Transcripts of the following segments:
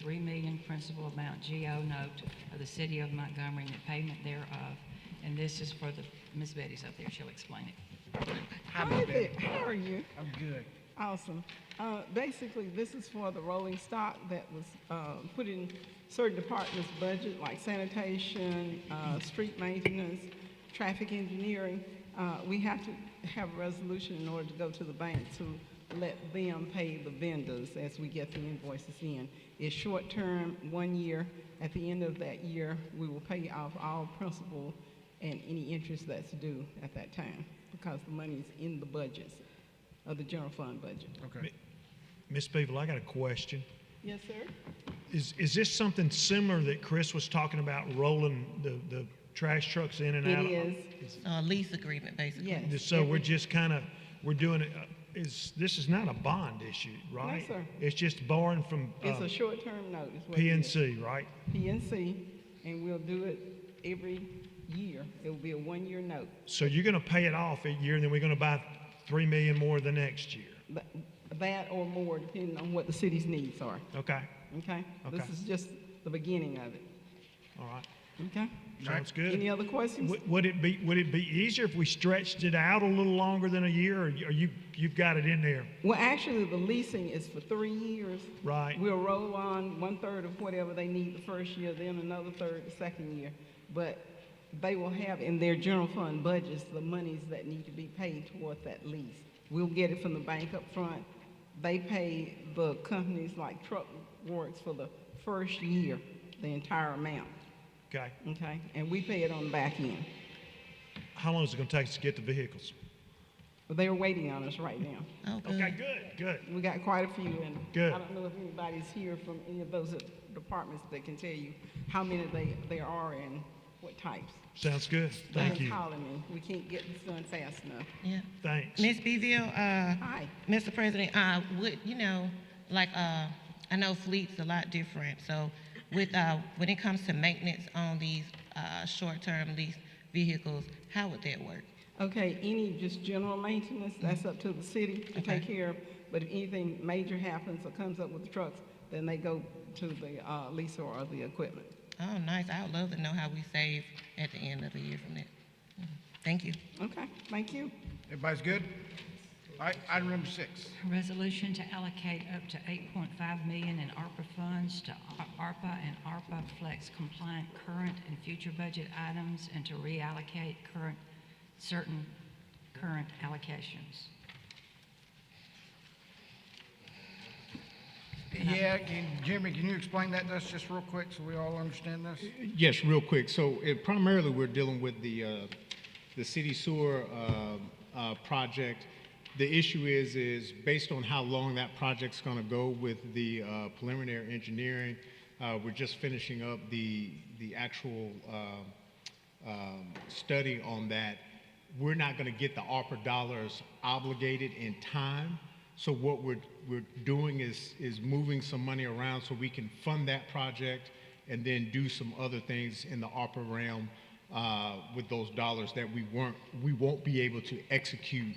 three million principal amount GO note of the city of Montgomery and the payment thereof. And this is for the, Ms. Betty's up there, she'll explain it. How is it? How are you? I'm good. Awesome. Uh, basically, this is for the rolling stock that was uh, put in certain departments' budget, like sanitation, uh, street maintenance, traffic engineering. Uh, we have to have a resolution in order to go to the bank to let them pay the vendors as we get the invoices in. It's short term, one year. At the end of that year, we will pay off all principal and any interest that's due at that time because the money is in the budgets of the general fund budget. Okay. Miss Beeville, I got a question. Yes, sir. Is, is this something similar that Chris was talking about, rolling the, the trash trucks in and out? It is, Uh, lease agreement, basically. yes. So we're Every- just kind of, we're doing it, uh, is, this is not a bond issue, right? sir. It's just borrowing from It's uh, a short-term note. is what it is. PNC, right? PNC, and we'll do it every year. It'll be a one-year note. So you're going to pay it off a year, and then we're going to buy three million more the next year. But that or more, depending on what the city's needs are, Okay, okay? This Okay. is just the beginning of it, all right, okay? sounds Any good. other questions? Would- Would it be, would it be easier if we stretched it out a little longer than a year, or you, or you- you've got it in there? Well, actually, the leasing is for three years. Right. We'll roll on one-third of whatever they need the first year, then another third the second year. But they will have in their general fund budgets the monies that need to be paid toward that lease. We'll get it from the bank up front. They pay the companies like Truck Works for the first year, the entire amount, Okay. okay? And we pay it on the back end. How long is it going to take us to get the vehicles? But they're waiting on us right now. Oh, good. Okay, good, good. We got quite a few, and Good. I don't know if anybody's here from any of those departments that can tell you how many they, there are and what types. Sounds good. Thank They're you. calling me. We can't get this done fast enough. Yeah. Thanks. Ms. Beville, uh, Hi. Mr. President, I would, you know, like, uh, I know fleet's a lot different, so with, uh, when it comes to maintenance on these, uh, short-term lease vehicles, how would that work? Okay, any just general maintenance, that's up to the city to Okay. take care of. But if anything major happens or comes up with the trucks, then they go to the uh, leaser or the equipment. Oh, nice, I would love to know how we save at the end of the year from that. Mhm. Thank you. Okay, thank you. Everybody's good? All right, item number six. Resolution to allocate up to 8.5 million in ARPA funds to A- ARPA and ARPA Flex compliant current and future budget items and to reallocate current, certain current allocations. Yeah, can- Jimmy, can you explain that to us just real quick so we all understand this? Yes, real quick. So it, primarily, we're dealing with the, uh, the city sewer, uh, uh, project. The issue is, is based on how long that project's gonna go with the, uh, preliminary engineering. Uh, we're just finishing up the, the actual, um, um, study on that. We're not gonna get the ARPA dollars obligated in time. So what we're, we're doing is, is moving some money around so we can fund that project and then do some other things in the ARPA realm uh, with those dollars that we weren't, we won't be able to execute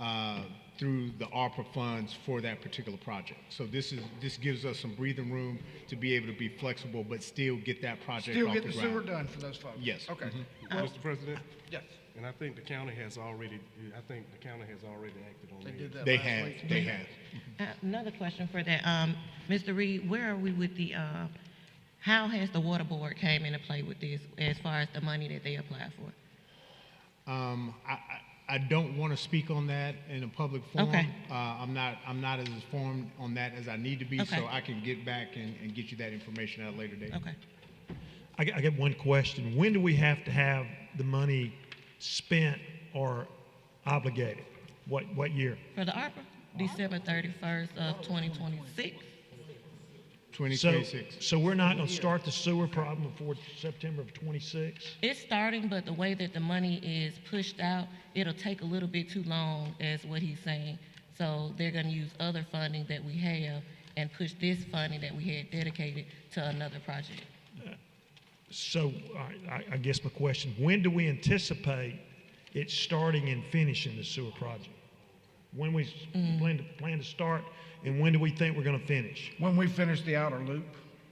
uh, through the ARPA funds for that particular project. So this is, this gives us some breathing room to be able to be flexible, but still get that project Still off get the the ground. sewer done for those folks? Yes. Okay. Mr. President, Yes. and I think the county has already, I think the county has already acted on They that. did that They last have, week. they have. Uh, Another question for that, um, Mr. Reed, where are we with the, uh, how has the water board came into play with this as far as the money that they applied for? Um, I, I- I don't want to speak on that in a public forum. Okay. Uh, I'm not, I'm not as informed on that as I need to be, Okay. so I can get back and, and get you that information at a later date. Okay. I got, I got one question. When do we have to have the money spent or obligated? What, what year? For the ARPA, December thirty-first of twenty twenty-six. So- 2026. So we're not going to start the sewer problem before September of '26? It's starting, but the way that the money is pushed out, it'll take a little bit too long, is what he's saying. So they're gonna use other funding that we have and push this funding that we had dedicated to another project. So I, I- I guess my question, when do we anticipate it starting and finishing the sewer project? When we s- plan to, plan to start, and when do we think we're going to finish? When we finish the outer loop,